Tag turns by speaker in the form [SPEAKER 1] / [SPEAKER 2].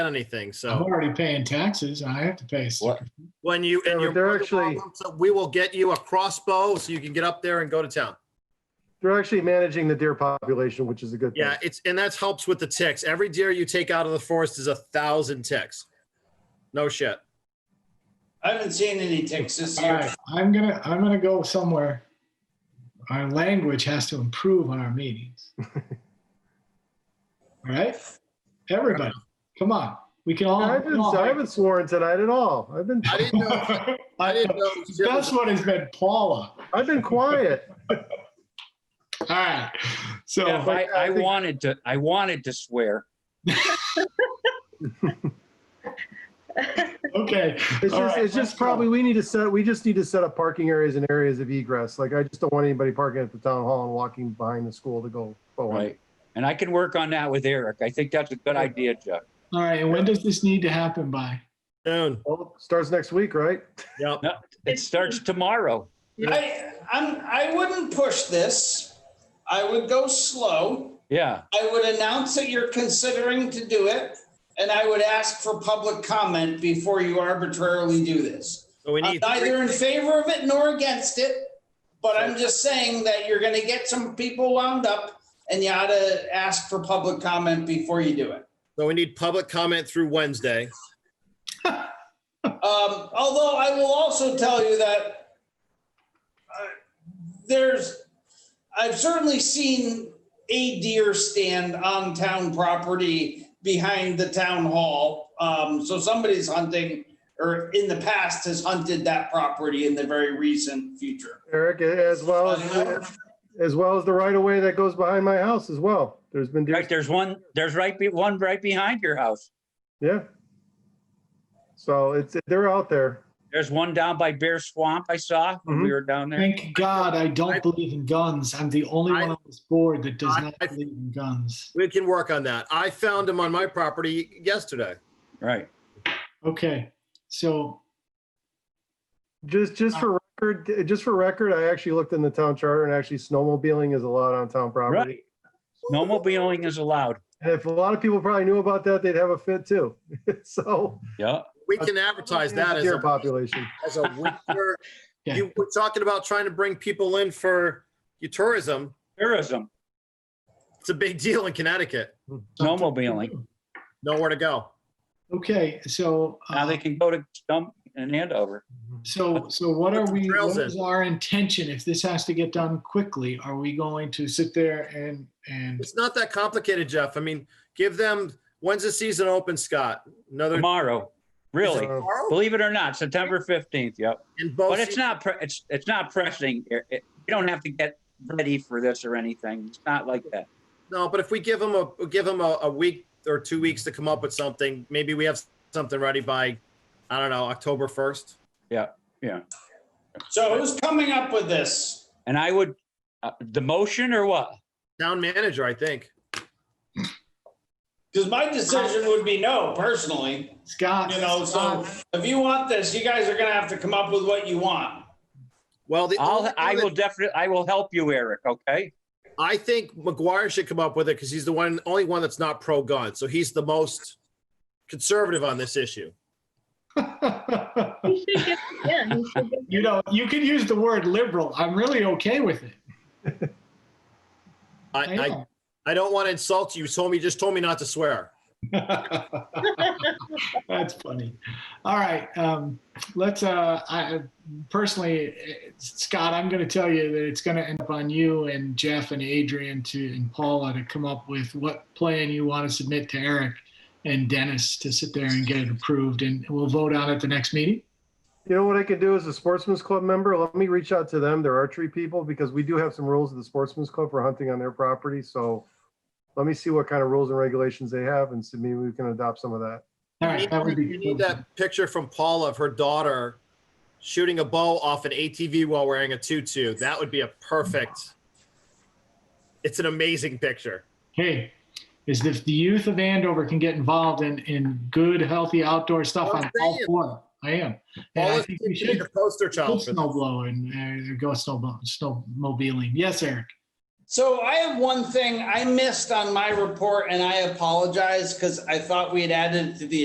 [SPEAKER 1] done anything,
[SPEAKER 2] I'm
[SPEAKER 3] Uh-huh.
[SPEAKER 1] so
[SPEAKER 2] already paying taxes. I have to pay. a
[SPEAKER 4] What?
[SPEAKER 2] sticker.
[SPEAKER 1] when you, and
[SPEAKER 3] So
[SPEAKER 1] you're.
[SPEAKER 3] they're
[SPEAKER 1] more than
[SPEAKER 3] actually-
[SPEAKER 1] welcome, So we will get you a crossbow so you can get up there and go to town.
[SPEAKER 3] They're actually managing the deer population, which is a good thing.
[SPEAKER 1] Yeah, it's, and that helps with the ticks. Every deer you take out of the forest is a thousand ticks. No shit.
[SPEAKER 5] I haven't seen any ticks this
[SPEAKER 2] All
[SPEAKER 5] year.
[SPEAKER 2] right, I'm gonna, I'm gonna go somewhere. Our language has to improve on our meetings. All right, everybody, come on, we can all.
[SPEAKER 3] I haven't, I haven't sworn tonight at all. I've been,
[SPEAKER 1] I didn't know, I didn't know. shit was-
[SPEAKER 2] That's what has been Paula.
[SPEAKER 3] I've been quiet.
[SPEAKER 2] All right,
[SPEAKER 6] Jeff,
[SPEAKER 2] so,
[SPEAKER 6] I, I wanted to, I wanted to swear.
[SPEAKER 2] okay.
[SPEAKER 3] It's
[SPEAKER 2] all
[SPEAKER 3] just,
[SPEAKER 2] right,
[SPEAKER 3] it's just
[SPEAKER 2] let's go.
[SPEAKER 3] probably, we need to set, we just need to set up parking areas and areas of egress. Like, I just don't want anybody parking at the town hall and walking behind the school to go forward.
[SPEAKER 6] Right. And I can work on that with Eric. I think that's a good idea, Jeff.
[SPEAKER 2] All right, and when does this need to happen by?
[SPEAKER 1] Noon.
[SPEAKER 3] Well, starts next week, right?
[SPEAKER 1] Yep.
[SPEAKER 6] It starts tomorrow.
[SPEAKER 5] I, I'm, I wouldn't push this. I would go slow.
[SPEAKER 6] Yeah.
[SPEAKER 5] I would announce that you're considering to do it, and I would ask for public comment before you arbitrarily do this.
[SPEAKER 1] So we
[SPEAKER 5] I'm
[SPEAKER 1] need, three-
[SPEAKER 5] neither in favor of it nor against it, but I'm just saying that you're gonna get some people wound up and you ought to ask for public comment before you do it.
[SPEAKER 1] so we need public comment through Wednesday.
[SPEAKER 5] Um, although I will also tell you that uh, there's, I've certainly seen a deer stand on town property behind the town hall. Um, so somebody's hunting or in the past has hunted that property in the very recent future.
[SPEAKER 3] Eric, as well as, as well as the right of way that goes behind my house as well. There's been deer.
[SPEAKER 6] Right. There's one, there's right, be one right behind your house.
[SPEAKER 3] Yeah. So it's, they're out there.
[SPEAKER 6] There's one down by Bear Swamp I saw when we were down there.
[SPEAKER 2] Thank God I don't believe in guns. I'm the only
[SPEAKER 1] I-
[SPEAKER 2] one on this board that does
[SPEAKER 1] I-
[SPEAKER 2] not believe in guns.
[SPEAKER 1] We can work on that. I found him on my property yesterday.
[SPEAKER 6] Right.
[SPEAKER 2] Okay, so,
[SPEAKER 3] Just, just for record, just for record, I actually looked in the town charter and actually snowmobiling is allowed on town property.
[SPEAKER 6] Snowmobiling is allowed.
[SPEAKER 3] And if a lot of people probably knew about that, they'd have a fit too. So.
[SPEAKER 6] Yeah.
[SPEAKER 1] We can advertise that as
[SPEAKER 3] Uh, Deer
[SPEAKER 1] a,
[SPEAKER 3] population.
[SPEAKER 1] as a winter.
[SPEAKER 2] Yeah.
[SPEAKER 1] You were talking about trying to bring people in for your tourism.
[SPEAKER 6] Tourism,
[SPEAKER 1] It's a big deal in Connecticut.
[SPEAKER 6] snowmobiling.
[SPEAKER 1] Nowhere to go.
[SPEAKER 2] okay, so,
[SPEAKER 6] Now
[SPEAKER 2] uh,
[SPEAKER 6] they can go to Stump and Andover.
[SPEAKER 2] so, so what are
[SPEAKER 1] Put some
[SPEAKER 2] we,
[SPEAKER 1] trails
[SPEAKER 2] what is
[SPEAKER 1] in.
[SPEAKER 2] our intention? If this has to get done quickly, are we going to sit there and, and,
[SPEAKER 1] It's not that complicated, Jeff. I mean, give them, when's the season open, Scott? Another.
[SPEAKER 6] Tomorrow. Really?
[SPEAKER 3] So,
[SPEAKER 6] Believe it or not, September 15th. Yep.
[SPEAKER 1] in both
[SPEAKER 6] But it's
[SPEAKER 1] seasons?
[SPEAKER 6] not, pre- it's, it's not pressing. It- it- You don't have to get ready for this or anything. It's not like that.
[SPEAKER 1] No, but if we give them a, give them a, a week or two weeks to come up with something, maybe we have something ready by, I don't know, October 1st.
[SPEAKER 5] So who's coming up with this?
[SPEAKER 6] And I would, uh, the motion or what?
[SPEAKER 1] Town manager, I think.
[SPEAKER 5] Because my decision would be no personally,
[SPEAKER 2] Scott?
[SPEAKER 5] you know, so
[SPEAKER 2] Scott,
[SPEAKER 5] if you want this, you guys are gonna have to come up with what you want.
[SPEAKER 1] Well, the. only
[SPEAKER 6] I'll,
[SPEAKER 1] thing
[SPEAKER 6] I
[SPEAKER 1] that-
[SPEAKER 6] will definitely, I will help you, Eric, okay?
[SPEAKER 1] I think McGuire should come up with it because he's the one, only one that's not pro-gun. So he's the most conservative on this issue.
[SPEAKER 7] He should get, yeah, he should get
[SPEAKER 2] You know, you could use the word liberal. I'm really okay with it. I
[SPEAKER 1] I, I,
[SPEAKER 2] am.
[SPEAKER 1] I don't want to insult you. You told me, just told me not to swear.
[SPEAKER 2] That's funny. All right, um, let's, uh, I, personally, eh, Scott, I'm gonna tell you that it's gonna end up on you and Jeff and Adrian to, and Paula to come up with what plan you want to submit to Eric and Dennis to sit there and get it approved, and we'll vote on it the next meeting.
[SPEAKER 3] You know what I could do as a sportsman's club member? Let me reach out to them. They're archery people because we do have some rules of the sportsman's club for hunting on their property. So let me see what kind of rules and regulations they have and see maybe we can adopt some of that.
[SPEAKER 2] All right, that would be.
[SPEAKER 1] You need that picture from Paula of her daughter shooting a bow off an ATV while wearing a tutu. That would be a perfect. It's an amazing picture.
[SPEAKER 2] hey, is if the youth of Andover can get involved in, in good, healthy outdoor stuff, I'm
[SPEAKER 1] I'm
[SPEAKER 2] all
[SPEAKER 1] saying.
[SPEAKER 2] for it. I am. And I
[SPEAKER 1] Paula's
[SPEAKER 2] think we
[SPEAKER 1] be
[SPEAKER 2] should
[SPEAKER 1] the poster
[SPEAKER 2] go
[SPEAKER 1] child for that.
[SPEAKER 2] snow blowing, uh, go snow, snowmobiling. Yes, Eric.
[SPEAKER 5] So I have one thing I missed on my report and I apologize because I thought we had added it to the